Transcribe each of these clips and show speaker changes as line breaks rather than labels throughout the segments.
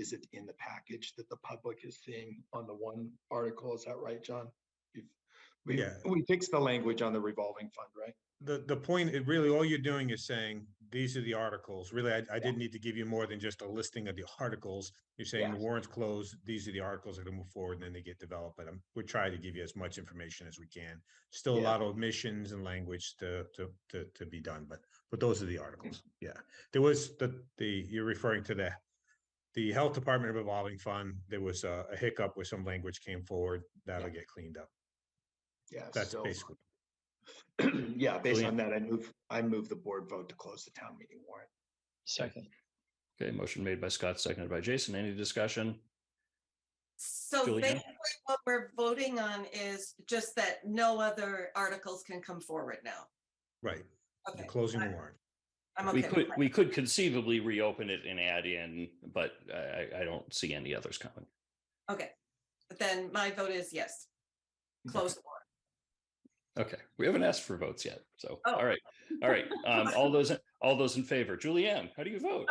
is it in the package that the public is seeing on the one article? Is that right, John? You've- We,
Yeah.
we fixed the language on the revolving fund, right?
The, the point, it really, all you're doing is saying, these are the articles. Really, I, I didn't need to give you more than just a listing of the articles. You're saying the
Yes.
warrant's closed, these are the articles that are move forward, and then they get developed, but I'm, we're trying to give you as much information as we can. Still a
Yeah.
lot of omissions and language to, to, to, to be done, but, but those are the articles, yeah. There was the, the, you're referring to the, the Health Department revolving fund, there was a a hiccup where some language came forward, that'll get cleaned up.
Yeah.
That's
so-
basically,
Yeah, based
yeah.
on that, I move, I move the board vote to close the town meeting warrant.
Second. Okay, motion made by Scott, seconded by Jason. Any discussion?
So
Julie, yeah.
basically, what we're voting on is just that no other articles can come forward now.
right,
Okay,
you're closing the
I-
warrant.
I'm
We
okay. with
could,
that.
we could conceivably reopen it and add in, but I, I- I don't see any others coming.
Okay, But then my vote is yes. Close the warrant.
Okay, we haven't asked for votes yet, so,
Oh.
all right, all right. Um, all those, all those in favor, Julianne, how do you vote?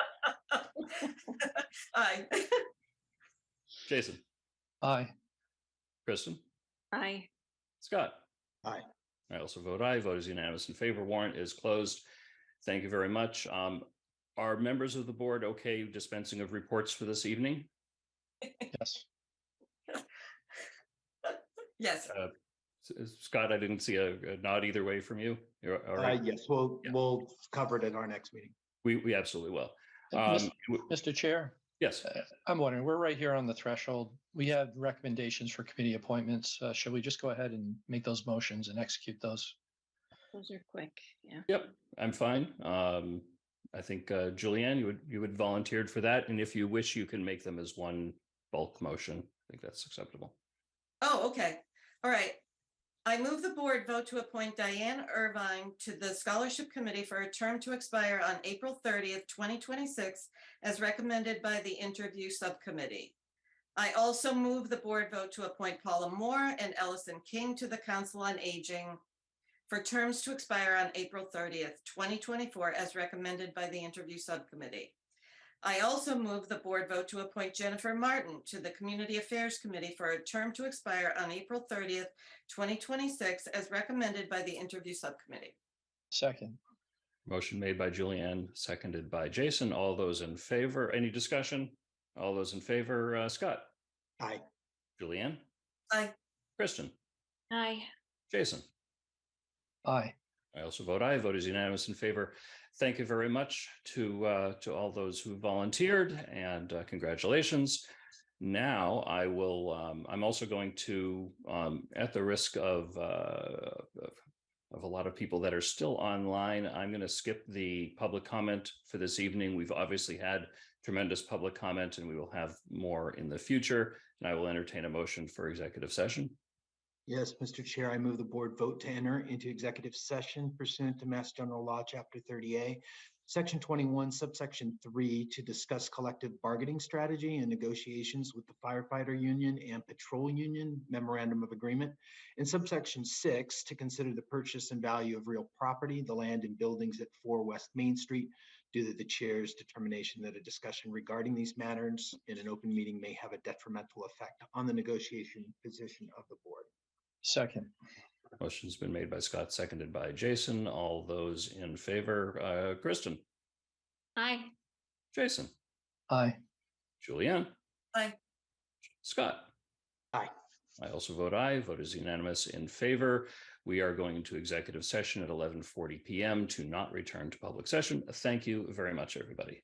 Aye.
Jason,
Aye.
Kristen,
Aye.
Scott?
Aye.
I also vote aye. Vote is unanimous in favor. Warrant is closed. Thank you very much. Um, are members of the board okay dispensing of reports for this evening?
Yes.
Yes,
S- uh, Scott, I didn't see a a nod either way from you. You're all
Uh,
right.
yes, we'll,
Yeah.
we'll cover it at our next meeting.
We, we absolutely will.
Mis-
Um, w-
Mr. Chair,
yes,
uh, I'm wondering, we're right here on the threshold. We have recommendations for committee appointments. Uh, Should we just go ahead and make those motions and execute those?
Those are quick, yeah.
yep, I'm fine. Um, I think, uh, Julianne, you would, you would volunteered for that. And if you wish, you can make them as one bulk motion. I think that's acceptable.
oh, okay, all right. I move the board vote to appoint Diane Irvine to the Scholarship Committee for a term to expire on April thirtieth, twenty twenty-six, as recommended by the Interview Subcommittee. I also move the board vote to appoint Paula Moore and Ellison King to the Council on Aging for terms to expire on April thirtieth, twenty twenty-four, as recommended by the Interview Subcommittee. I also move the board vote to appoint Jennifer Martin to the Community Affairs Committee for a term to expire on April thirtieth, twenty twenty-six, as recommended by the Interview Subcommittee.
Second.
Motion made by Julianne, seconded by Jason. All those in favor, any discussion? All those in favor, uh, Scott?
Aye.
Julianne?
Aye.
Kristen?
Aye.
Jason?
Aye.
I also vote aye. Vote is unanimous in favor. Thank you very much to uh, to all those who volunteered and uh, congratulations. Now I will. Um, I'm also going to, um, at the risk of, uh, of of a lot of people that are still online, I'm going to skip the public comment for this evening. We've obviously had tremendous public comment, and we will have more in the future. And I will entertain a motion for executive session.
Yes, Mr. Chair, I move the board vote to enter into executive session pursuant to Mass General Law, Chapter 30A, Section 21, Subsection 3, to discuss collective bargaining strategy and negotiations with the firefighter union and patrol union memorandum of agreement. And subsection 6, to consider the purchase and value of real property, the land and buildings at 4 West Main Street, due to the chair's determination that a discussion regarding these matters in an open meeting may have a detrimental effect on the negotiation position of the board.
Second.
Motion's been made by Scott, seconded by Jason. All those in favor, uh, Kristen,
Aye.
Jason,
Aye.
Julianne.
Aye.
Scott.
Aye.
I also vote aye. Vote is unanimous in favor. We are going into executive session at eleven forty PM to not return to public session. Thank you very much, everybody.